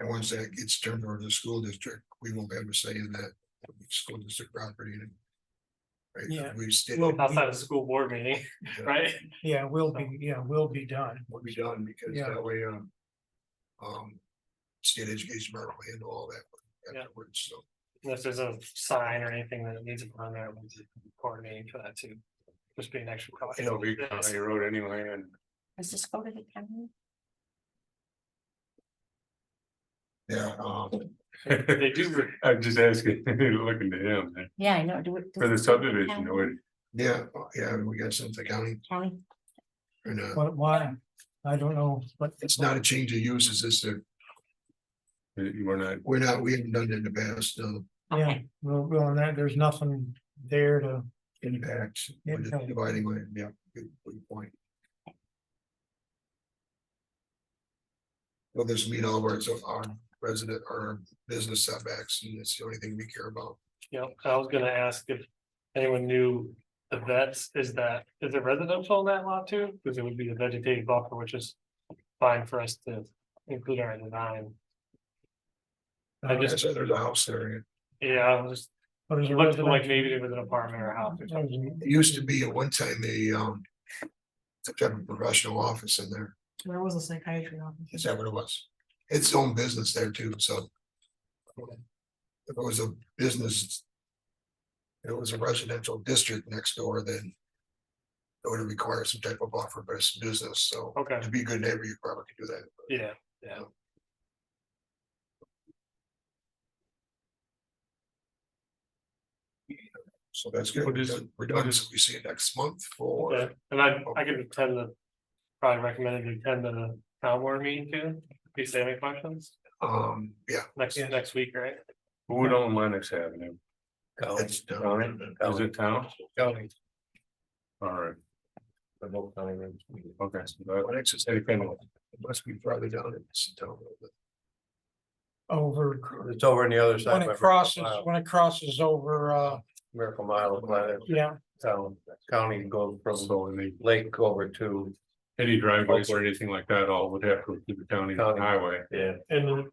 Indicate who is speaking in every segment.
Speaker 1: And once that gets turned over to the school district, we won't have a say in that school district property. Right,
Speaker 2: Yeah.
Speaker 1: we stay,
Speaker 2: We'll be-
Speaker 3: outside of school board meeting,
Speaker 1: uh,
Speaker 3: right?
Speaker 2: Yeah, will be, yeah, will be done.
Speaker 1: will be done because
Speaker 2: Yeah.
Speaker 1: that way, um. Um, state education department will handle all that
Speaker 3: Yeah.
Speaker 1: afterwards, so.
Speaker 3: If there's a sign or anything that needs to be on there, we'll coordinate for that too. Just be an extra cost.
Speaker 4: It'll be county road anyway, and
Speaker 5: Does this go to the county?
Speaker 1: Yeah, um,
Speaker 3: They do,
Speaker 4: I'm just asking, looking to him
Speaker 5: Yeah, I know, do it. does
Speaker 4: for the
Speaker 5: this go to
Speaker 4: subdivision,
Speaker 5: county?
Speaker 4: would-
Speaker 1: yeah, yeah, we got something to county
Speaker 5: County,
Speaker 1: and uh,
Speaker 2: But why? I don't know, but
Speaker 1: it's not a change of use, it's just a,
Speaker 4: you were not,
Speaker 1: we're not, we haven't done it in the past, um,
Speaker 2: yeah,
Speaker 5: okay,
Speaker 2: well, well, and that, there's nothing there to,
Speaker 1: impact.
Speaker 2: Yeah,
Speaker 1: we're just
Speaker 2: county.
Speaker 1: Dividing land, yeah, good, good point. Well, this meet all of our, so our resident, our business setbacks, and it's the only thing we care about.
Speaker 3: you know, I was gonna ask if anyone knew the vets, is that, is it residential in that lot too? Because it would be a vegetated buffer, which is fine for us to include our design. I
Speaker 1: I
Speaker 3: just,
Speaker 1: said there's a house there,
Speaker 3: yeah, I was just
Speaker 2: but there's uh, a
Speaker 3: looked like
Speaker 2: residential.
Speaker 3: maybe there was an apartment or a house or something.
Speaker 2: there's a-
Speaker 1: it used to be at one time a, um. Some type of professional office in there,
Speaker 6: There was a psychiatry office.
Speaker 1: is that what it was? It's own business there too, so. If it was a business. if It was a residential district next door, then. It would require some type of offer, but it's business, so.
Speaker 3: Okay,
Speaker 1: To be a good neighbor, you probably could do that.
Speaker 3: yeah, yeah.
Speaker 1: So that's good.
Speaker 4: What is it?
Speaker 1: We're done. So we see you next month for,
Speaker 3: Okay, and I, I could attend the, probably recommended you attend the town board meeting too, if you have any questions,
Speaker 1: um, yeah.
Speaker 3: next,
Speaker 2: Yes.
Speaker 3: next week, right?
Speaker 4: who would own Lennox Avenue?
Speaker 1: that's done.
Speaker 4: County? Is it town?
Speaker 3: County.
Speaker 4: All right,
Speaker 3: The both county rooms.
Speaker 4: okay, so that,
Speaker 1: Well, next is-
Speaker 4: Hey, Kendall.
Speaker 1: It Must be farther down in this town.
Speaker 2: Over,
Speaker 7: It's over on the other
Speaker 2: when
Speaker 7: side.
Speaker 2: it
Speaker 7: by
Speaker 2: crosses,
Speaker 7: Mile-
Speaker 2: when it crosses over, uh,
Speaker 7: Miracle Mile, Planet
Speaker 2: yeah,
Speaker 7: Town, county goes from
Speaker 4: so any,
Speaker 7: lake over to,
Speaker 4: any driveways or anything like that, all would have to go through the county
Speaker 7: County.
Speaker 4: highway.
Speaker 7: yeah,
Speaker 3: And then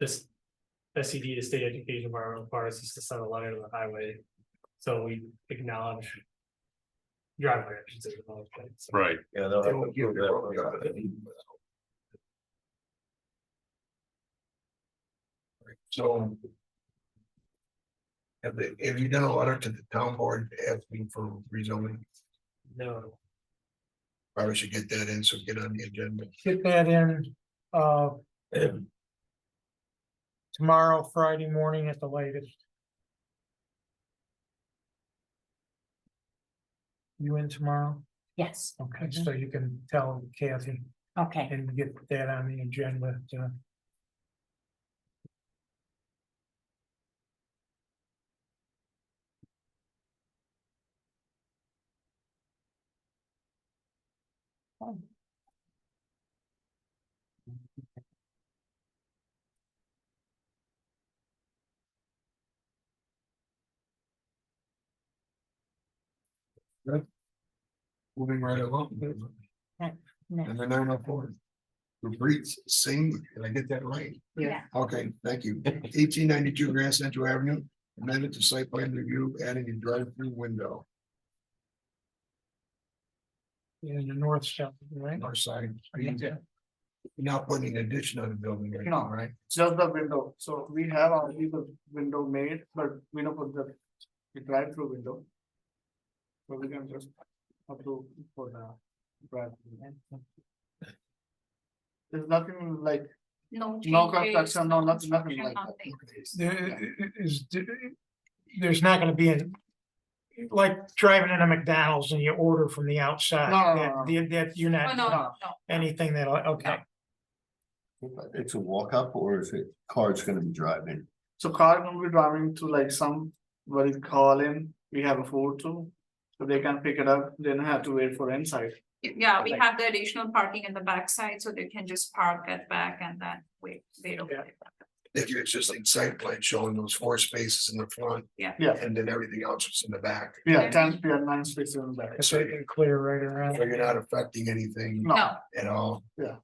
Speaker 3: this S E D, the state education department requires us to send a letter to the highway, so we acknowledge. Driveway, I should say. acknowledge that, so.
Speaker 4: Right,
Speaker 7: yeah. they'll have to approve that one.
Speaker 1: So. Have they, have you done a letter to the town board asking for rezoning?
Speaker 3: No,
Speaker 1: Probably should get that in, so get on the agenda.
Speaker 2: get that in, uh. Tomorrow, Friday morning at the latest. You in tomorrow?
Speaker 5: yes,
Speaker 2: Okay,
Speaker 5: Mhm.
Speaker 2: so you can tell Kathy
Speaker 5: okay,
Speaker 2: and get that on the agenda uh, to.
Speaker 1: Moving right along.
Speaker 5: no,
Speaker 1: Number nine oh four. Rupreet Singh, did I get that right?
Speaker 5: yeah.
Speaker 1: Okay, thank you. Eighteen ninety-two Grand Central Avenue, amended to site plan review, adding a drive-through window,
Speaker 2: In the north side, right?
Speaker 1: north side. Are you there? You're not putting an addition on the building right
Speaker 8: No.
Speaker 1: now, right?
Speaker 8: Just the window, so we have already the window made, but we don't put the, the drive-through window. So we can just approve for the drive-through. There's nothing like,
Speaker 5: No.
Speaker 8: no construction, no, nothing, nothing like that.
Speaker 2: There is, there's not gonna be an. Like driving in a McDonald's and you order from the outside,
Speaker 8: No, no,
Speaker 2: that,
Speaker 8: no,
Speaker 2: the- that you're
Speaker 6: Oh,
Speaker 2: not. Anything that'll, okay,
Speaker 7: It's a walk up or is it car's gonna be driving?
Speaker 8: So car gonna be driving to like some, what is call in, we have a food too. So they can pick it up, they don't have to wait for inside.
Speaker 6: Yeah, we
Speaker 8: Like-
Speaker 6: have the additional parking in the backside, so they can just park at back and then wait, they don't.
Speaker 8: Yeah.
Speaker 1: If you're just in site plan showing those four spaces in the front
Speaker 8: Yeah,
Speaker 1: and then everything else is in the back.
Speaker 8: yeah, ten, we have nine spaces in the back.
Speaker 2: so you can clear right around.
Speaker 1: So you're not affecting anything
Speaker 8: No,
Speaker 6: No,
Speaker 1: at all.
Speaker 8: Yeah.